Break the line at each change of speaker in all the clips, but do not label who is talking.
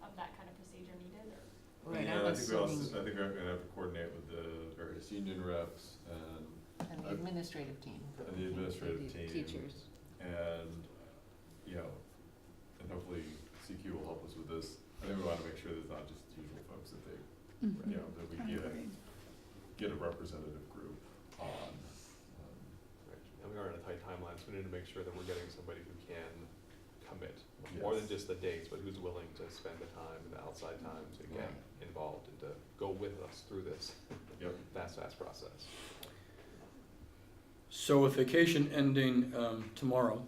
that, that kind of procedure needed, or?
Right,
Yeah,
I
I
was
think we also,
sitting,
I think I'm gonna have to coordinate with the various union reps and,
and the administrative team.
And the administrative
the
team.
Teachers.
and, you know, and hopefully CQ will help us with this. I think we wanna make sure there's not just the usual folks that they,
Mm-hmm.
you know, that we get a, get a representative group on. um,
Right, And we are in a tight timeline, so we need to make sure that we're getting somebody who can commit,
Yes.
more than just the dates, but who's willing to spend the time and the outside time to get
Right.
involved and to go with us through this
Yep,
fast, fast process.
So with vacation ending um, tomorrow,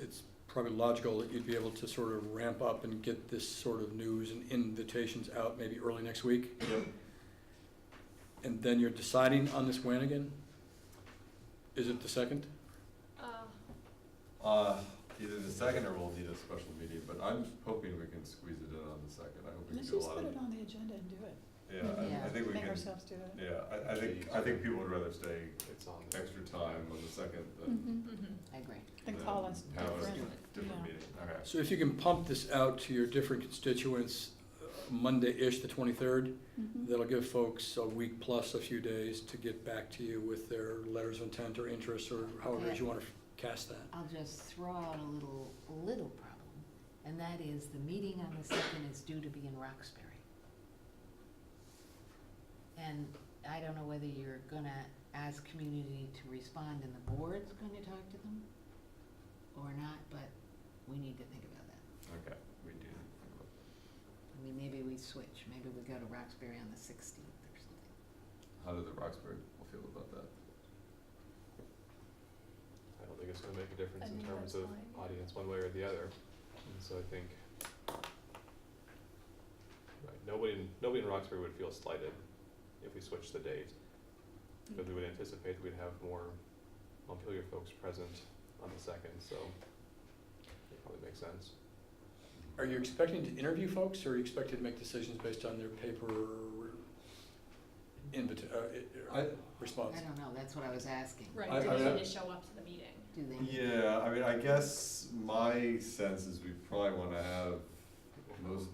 it's probably logical that you'd be able to sort of ramp up and get this sort of news and invitations out maybe early next week.
yep,
And then you're deciding on this when again? Is it the second?
Uh,
uh, either the second or we'll need a special meeting, but I'm hoping we can squeeze it in on the second. I hope we can
Let's
do a
just
lot
put
of.
it on the agenda and do it.
Yeah, I- I
Yeah.
think we
Make
can,
ourselves do it.
yeah, I, I think, I think people would rather stay
It's on. there.
extra time on the second than
Mm-hmm,
Mhm.
I agree.
Then call us
Have a
different.
different
Yeah.
meeting, okay.
So if you can pump this out to your different constituents uh, Monday-ish, the 23rd,
Mhm.
that'll give folks a week plus a few days to get back to you with their letters of intent or interest or however it is you want to cast that.
I'll just throw out a little, little problem, and that is the meeting on the second is due to be in Roxbury. And I don't know whether you're gonna ask community to respond and the board's gonna talk to them or not, but we need to think about that.
Okay, we do.
I mean, maybe we switch, maybe we go to Roxbury on the sixteenth or something.
How do the Roxbury people feel about that?
I don't think it's gonna make a difference
I
in
think
terms
that's
of
fine.
audience one way or the other, and so I think. Right, nobody, in- nobody in Roxbury would feel slighted if we switched the date,
Mm.
because we would anticipate we'd have more Montpelier folks present on the second, so it probably makes sense.
Are you expecting to interview folks, or are you expected to make decisions based on their paper invita- uh, i-
I,
uh, response?
I don't know, that's what I was asking.
I-
Right, do
I-
they need to show up to the meeting?
Do they?
yeah, I mean, I guess my sense is we probably wanna have most,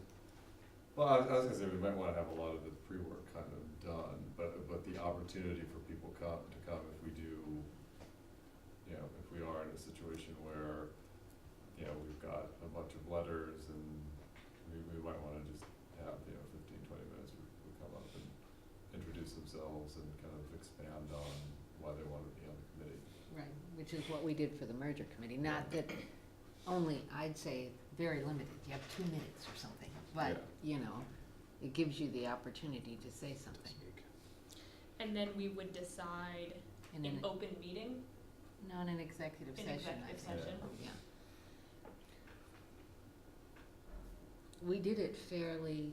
well, I was, I was gonna say, we might wanna have a lot of the pre-work kind of done, but, but the opportunity for people come, to come if we do, you know, if we are in a situation where, you know, we've got a bunch of letters and we, we might wanna just have, you know, fifteen, twenty minutes, we, we come up and introduce themselves and kind of expand on why they wanna be on the committee.
Right, which is what we did for the merger committee, not that, only, I'd say, very limited, you have two minutes or something,
Yeah.
but, you know, it gives you the opportunity to say something.
And then we would decide
And
in
then,
open meeting,
not an executive
Oh. in
session, I
executive
think,
session.
yeah. We did it fairly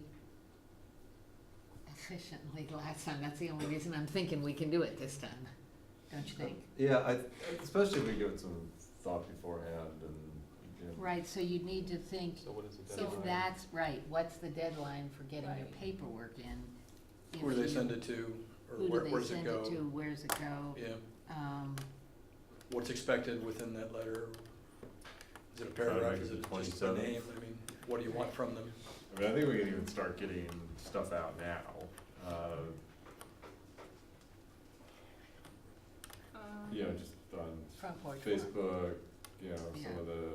efficiently last time, that's the only reason I'm thinking we can do it this time, don't you think?
Yeah, I, especially if we give it some thought beforehand and, you know.
Right, so you'd need to think,
So what is the
So
deadline?
If that's right, what's the deadline for getting your
Right.
paperwork in? If
Who do they
you-
send it to, or
Who
where,
do they
where does it
send
go?
it to, where's it go?
Yeah,
Um,
what's expected within that letter? Is it a
Try
paragraph,
to make
is
it
it just a
27.
name? I mean, what do you want from them?
I mean, I think we can even start getting stuff out now. Uh,
Um,
you know, just on
Front porch. Forum.
Facebook, you know, some of the,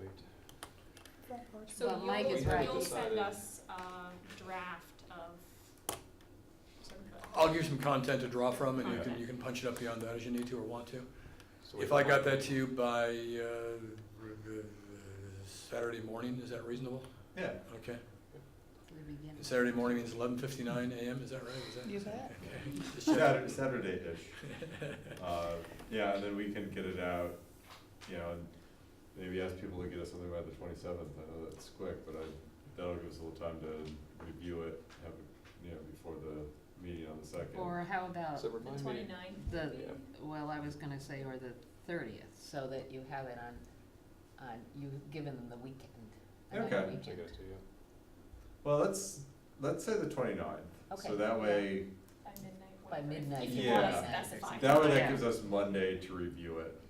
Wait,
Front porch.
So
Well, Mike
you'll,
is
right.
you'll send
Decided.
us a draft of sort of a-
I'll give you some content to draw from, and you can,
Content.
you can punch it up beyond that as you need to or want to.
so
If
we-
I got that to you by, uh, Saturday morning, is that reasonable?
yeah,
Okay.
For the beginning.
Saturday morning means eleven fifty-nine AM, is that right? Is that-
You bet.
Okay. Just check.
Saturday, Saturday-ish. Uh, yeah, and then we can get it out, you know, and maybe ask people to get us something by the twenty-seventh. I know that's quick, but I, that'll give us a little time to review it, have, it, you know, before the meeting on the second.
Or how about
So
the
remind me,
twenty-ninth.
the, well, I was gonna say, or the thirtieth, so that you have it on, on, you've given them the weekend. another
Okay.
I get
weekend.
it to you.
Well, let's, let's say the twenty-ninth.
Okay.
So that way,
By midnight.
By
whatever, if-
midnight,
If you want
Yeah.
to specify.
That way, that
Yeah.
gives us Monday to review it.